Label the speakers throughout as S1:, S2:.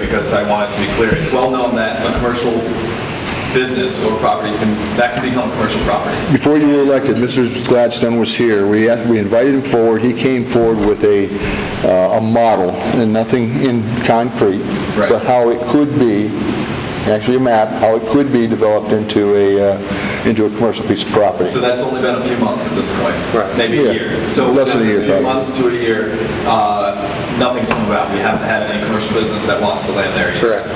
S1: because I want it to be clear. It's well known that a commercial business or property can, that can become commercial property.
S2: Before you were elected, Mr. Gladstone was here. We asked, we invited him forward. He came forward with a, uh, a model, and nothing in concrete,
S1: Right.
S2: but how it could be, actually a map, how it could be developed into a, uh, into a commercial piece of property.
S1: So that's only been a few months at this point.
S2: Right.
S1: Maybe
S2: Yeah.
S1: a year. So
S2: Less than a
S1: it's
S2: year,
S1: Few
S2: probably.
S1: months to a year, uh, nothing's come about. We haven't had any commercial business that wants to land there yet.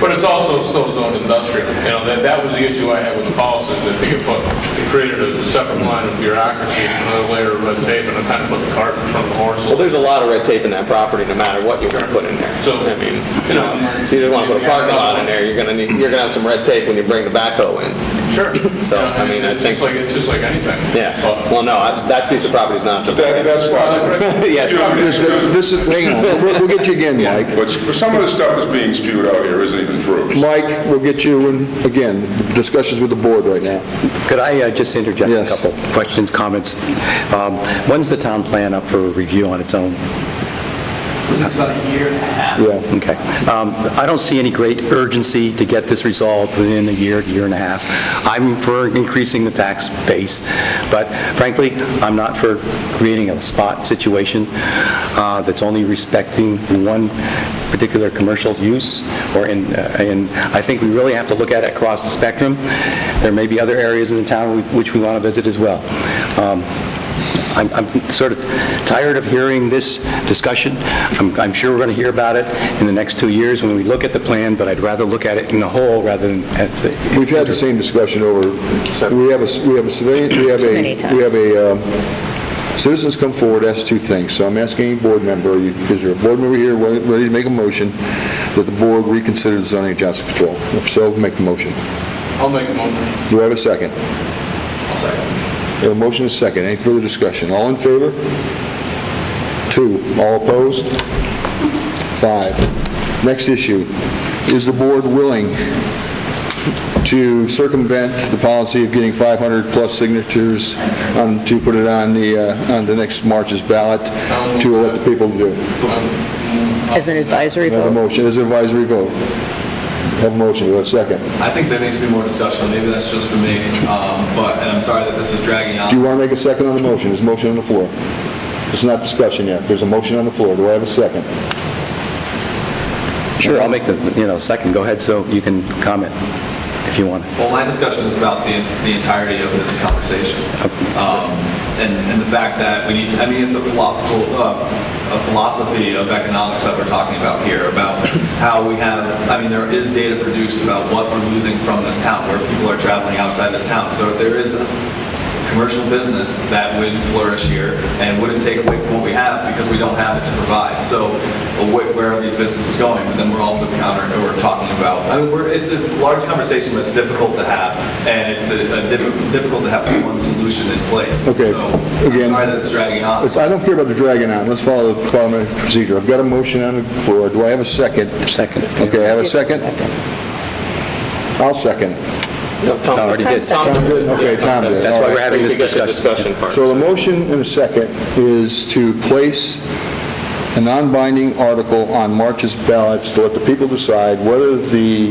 S3: But it's also still zoned industrial. You know, that, that was the issue I had with the policy, is I think it put, it created a separate line of bureaucracy, and another layer of red tape, and it kind of put the cart in front of the horse.
S4: Well, there's a lot of red tape in that property, no matter what you're gonna put in there.
S3: So, I mean, you know.
S4: You just wanna put a parking lot in there, you're gonna need, you're gonna have some red tape when you bring the backhoe in.
S3: Sure.
S4: So,
S3: You know,
S4: I mean, I
S3: It's
S4: think-
S3: just like, it's just like anything.
S4: Yeah,
S3: But-
S4: well, no, that's, that piece of property's not just.
S5: That- That's not,
S2: This this is, hang on, we'll we'll get you again, Mike.
S5: but some of the stuff that's being spewed out here isn't even true.
S2: Mike, we'll get you in, again, discussions with the board right now.
S6: Could I uh, just interject a
S2: Yes.
S6: couple questions, comments? Um, When's the town plan up for review on its own?
S1: It's about a year and a half.
S2: Yeah.
S6: Okay. Um, I don't see any great urgency to get this resolved within a year, year and a half. I'm for increasing the tax base, but frankly, I'm not for creating a spot situation uh, that's only respecting one particular commercial use, or in, uh, and I think we really have to look at it across the spectrum. There may be other areas in the town we- which we want to visit as well. Um, I'm- I'm sort of tired of hearing this discussion. I'm I'm sure we're going to hear about it in the next two years when we look at the plan, but I'd rather look at it in the whole rather than at...
S2: We've had the same discussion over, we have a, s- we have a civilian, we have
S7: Too many
S2: a, we have
S7: times.
S2: a, um, citizens come forward, ask two things, so I'm asking any board member, are you- is there a board member here wa- ready to make a motion that the board reconsider the zoning adjustment control? If so, make the motion.
S3: I'll make a motion.
S2: Do I have a second?
S1: I'll second.
S2: We have A motion is second, any further discussion? All in favor? Two, all opposed? Five. Next issue, is the board willing to circumvent the policy of getting 500-plus signatures on- to put it on the, uh, on the next March's ballot to let the people do?
S7: As an advisory
S2: Have a
S7: vote?
S2: motion, is an advisory vote. Have a motion, do I have a second?
S1: I think there needs to be more discussion. Maybe that's just for me. Um, but, and I'm sorry that this is dragging out.
S2: Do you want to make a second on the motion? There's a motion on the floor. It's not discussion yet, there's a motion on the floor, do I have a second?
S6: Sure, I'll make the, you know, second, go ahead, so you can comment if you want.
S1: Well, my discussion is about the, the entirety of this conversation. Um, And, and the fact that we need, I mean, it's a philosophical, uh, a philosophy of economics that we're talking about here, about how we have, I mean, there is data produced about what we're losing from this town, where people are traveling outside this town. So there is commercial business that would flourish here and wouldn't take away from what we have because we don't have it to provide. So uh, wh- where are these businesses going? But then we're also countering, we're talking about, I mean, we're, it's, it's a large conversation that's difficult to have and it's a a diff- difficult to have one solution in place.
S2: Okay,
S1: So I'm
S2: again-
S1: sorry that it's dragging on.
S2: It's- I don't care about the dragging on, let's follow the parliamentary procedure. I've got a motion on the floor, do I have a second?
S6: Second.
S2: Okay, I have a second? I'll second.
S4: No, Tom already
S7: did. Tom
S2: Tom did? Okay, Tom did.
S4: That's
S2: All
S4: why
S2: right.
S4: we're having this discussion. part.
S2: So the motion and a second is to place a non-binding article on March's ballots to let the people decide whether the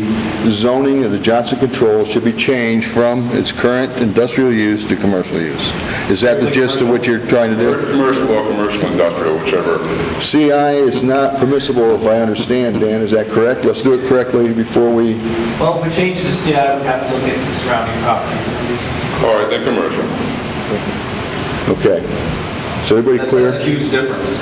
S2: zoning of the Johnson Control should be changed from its current industrial use to commercial use. Is that the gist of what you're trying to do?
S5: Or if Commercial or commercial industrial, whichever.
S2: CI is not permissible, if I understand, Dan, is that correct? Let's do it correctly before we,
S8: Well, if we change it to CI, we have to look at the surrounding properties at least.
S5: All right, then commercial.
S2: okay. So everybody
S1: That- That's a
S2: clear?
S1: huge difference.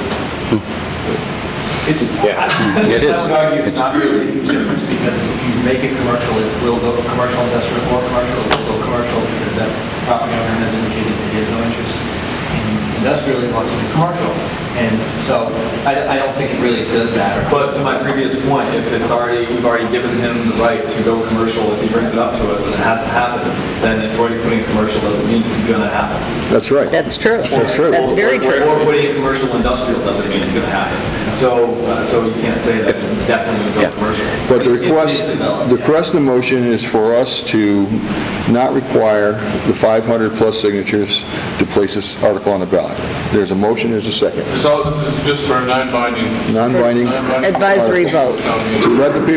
S6: It
S8: I would argue it's not really a huge difference because if you make it commercial, it will go commercial industrial or commercial, it will go commercial because that property owner has indicated that he has no interest in industrial, he wants it to be commercial. And so I, I don't think it really does matter.
S1: But to my previous point, if it's already, we've already given him the right to go commercial, if he brings it up to us and it hasn't happened, then already putting it commercial doesn't mean it's gonna happen.
S2: That's right.
S7: That's true.
S2: That's true.
S7: That's very
S1: Or-
S7: true.
S1: Or putting it commercial industrial doesn't mean it's going to happen. So, uh, so you can't say that it's definitely going to go commercial.
S2: But
S1: It's- it
S2: the
S1: needs
S2: request,
S1: to develop,
S2: the
S1: yeah.
S2: request of the motion is for us to not require the 500-plus signatures to place this article on the ballot. There's a motion, there's a second.
S3: This is all, this is just for a non-binding.
S2: Non-binding.
S3: Non-binding.
S7: Advisory vote.
S3: Um,
S2: to let the people